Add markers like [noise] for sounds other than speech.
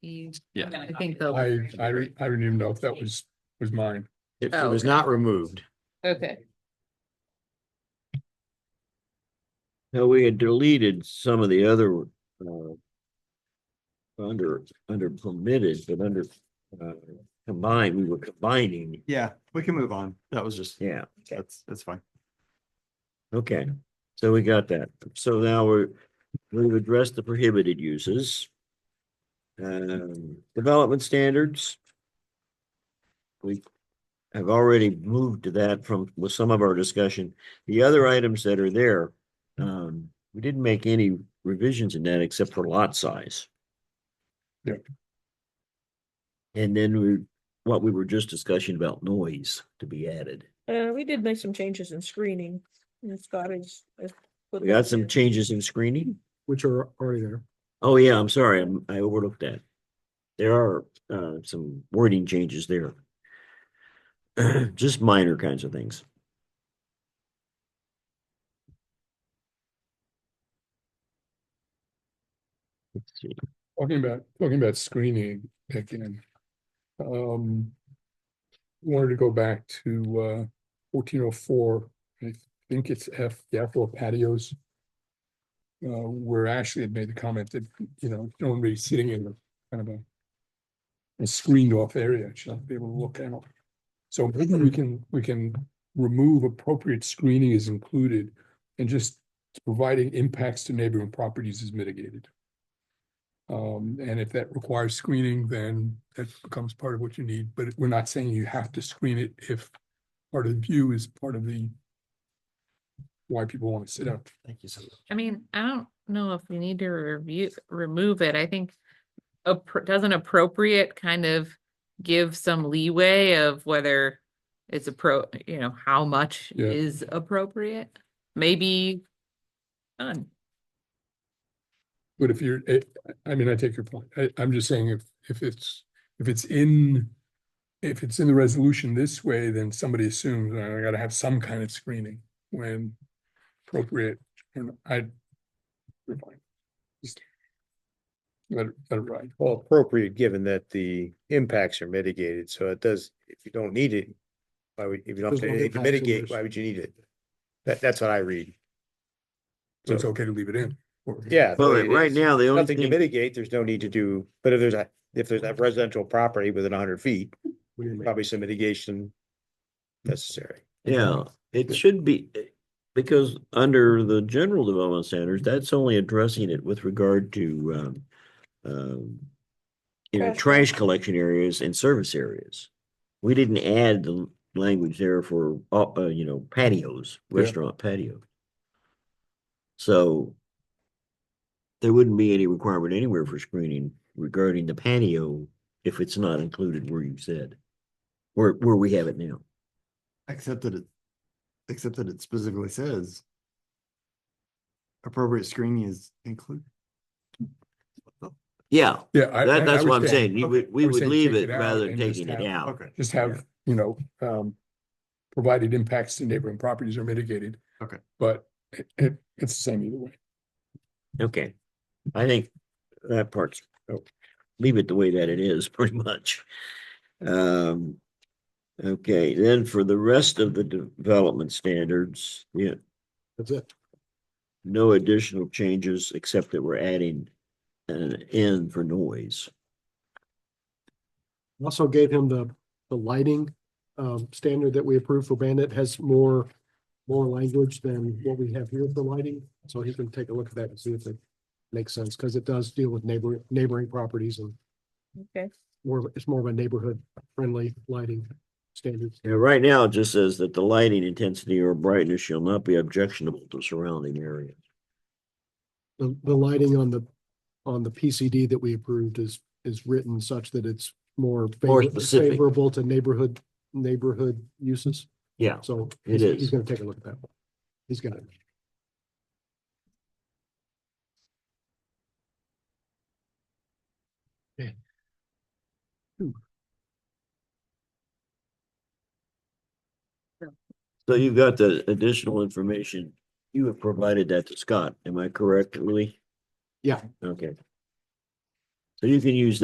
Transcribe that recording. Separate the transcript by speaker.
Speaker 1: You-
Speaker 2: Yeah.
Speaker 1: I'm gonna copy that.
Speaker 3: I, I, re- I didn't even know if that was, was mine.
Speaker 4: It it
Speaker 1: Oh,
Speaker 4: was
Speaker 1: okay.
Speaker 4: not removed.
Speaker 1: Okay,
Speaker 5: No, we had deleted some of the other, uh. Under, under permitted, but under, uh, combined, we were combining,
Speaker 2: Yeah, we can move on. That was just,
Speaker 5: yeah,
Speaker 2: that's, that's fine.
Speaker 5: okay. So we got that. So now we're, we've addressed the prohibited uses. Um, development standards. We have already moved to that from, with some of our discussion. The other items that are there, um, we didn't make any revisions in that except for lot size.
Speaker 3: Yeah.
Speaker 5: And then we, what we were just discussing about noise to be added.
Speaker 6: Uh, we did make some changes in screening, and Scott is.
Speaker 5: We got some changes in screening.
Speaker 4: Which are already there.
Speaker 5: Oh, yeah, I'm sorry, I'm- I overlooked that. There are uh some wording changes there. [clears throat] Just minor kinds of things. Let's see.
Speaker 3: Talking about, talking about screening again. Um. Wanted to go back to uh fourteen oh four, I think it's F, the outdoor patios. Uh, where Ashley had made the comment that, you know, no one really sitting in the kind of a. A screened off area, she'll be able to look out. So maybe we can, we can remove appropriate screening is included. And just providing impacts to neighboring properties is mitigated. Um, and if that requires screening, then that becomes part of what you need, but we're not saying you have to screen it if part of the view is part of the why people want to sit up.
Speaker 4: Thank you so much.
Speaker 1: I mean, I don't know if we need to review, remove it, I think. appro- doesn't appropriate kind of give some leeway of whether it's appro, you know, how much
Speaker 3: Yeah.
Speaker 1: is appropriate? Maybe none.
Speaker 3: But if you're, I, I mean, I take your point. I, I'm just saying if, if it's, if it's in, if it's in the resolution this way, then somebody assumes "Oh, I gotta have some kind of screening when appropriate. And I, we're fine. Just Let it, let it ride.
Speaker 7: Well, appropriate, given that the impacts are mitigated, so it does, if you don't need it, why would, if you don't,
Speaker 3: There's no
Speaker 7: if
Speaker 3: impacts
Speaker 7: you
Speaker 3: on
Speaker 7: mitigate,
Speaker 3: this.
Speaker 7: why would you need it? That, that's what I read.
Speaker 3: So it's okay to leave it in. or-
Speaker 7: Yeah. the
Speaker 5: Well,
Speaker 7: way
Speaker 5: right-
Speaker 7: it
Speaker 5: right
Speaker 7: is.
Speaker 5: now, the only
Speaker 7: Nothing to
Speaker 5: thing,
Speaker 7: mitigate, there's no need to do, but if there's a, if there's a residential property within hundred feet, probably some mitigation necessary.
Speaker 5: yeah, it should be. Because under the general development standards, that's only addressing it with regard to um. Um. You know,
Speaker 6: Trash.
Speaker 5: trash collection areas and service areas. We didn't add the language there for, uh, uh, you know, patios,
Speaker 3: Yeah.
Speaker 5: restaurant patio. So. There wouldn't be any requirement anywhere for screening regarding the patio if it's not included where you said. Where, where we have it now.
Speaker 2: Except that it, except that it specifically says. Appropriate screening is included.
Speaker 5: Yeah,
Speaker 3: Yeah. I- I- I
Speaker 5: that, that's what
Speaker 3: would
Speaker 5: I'm
Speaker 3: say-
Speaker 5: saying. You would,
Speaker 3: I
Speaker 5: we
Speaker 3: would
Speaker 5: would
Speaker 3: say
Speaker 5: leave
Speaker 3: take
Speaker 5: it
Speaker 3: it out
Speaker 5: rather than
Speaker 3: and just
Speaker 5: taking it
Speaker 3: have-
Speaker 5: out.
Speaker 2: Okay.
Speaker 3: just have, you know, um, provided impacts to neighboring properties are mitigated.
Speaker 2: Okay.
Speaker 3: But it, it, it's the same either way.
Speaker 5: Okay. I think that part's, oh, leave it the way that it is, [laughs] pretty much. Um, okay, then for the rest of the development standards, yeah,
Speaker 4: That's it.
Speaker 5: no additional changes except that we're adding an N for noise.
Speaker 4: Also gave him the, the lighting, um, standard that we approved for Bandit has more, more language than what we have here for lighting. So he can take a look at that and see if it makes sense, because it does deal with neighboring, neighboring properties and
Speaker 6: Okay,
Speaker 4: more, of- it's more of a neighborhood friendly lighting standards.
Speaker 5: Yeah, right now, it just says that the lighting intensity or brightness shall not be objectionable to surrounding area.
Speaker 4: The, the lighting on the, on the PCD that we approved is, is written such that it's more
Speaker 5: More
Speaker 4: favor-
Speaker 5: specific.
Speaker 4: favorable to neighborhood, neighborhood uses.
Speaker 5: Yeah.
Speaker 4: So
Speaker 5: It
Speaker 4: he's,
Speaker 5: is.
Speaker 4: he's gonna take a look at that. He's got it.
Speaker 5: So you've got the additional information. You have provided that to Scott. Am I correct, Lee?
Speaker 4: Yeah.
Speaker 5: Okay. So you can use that.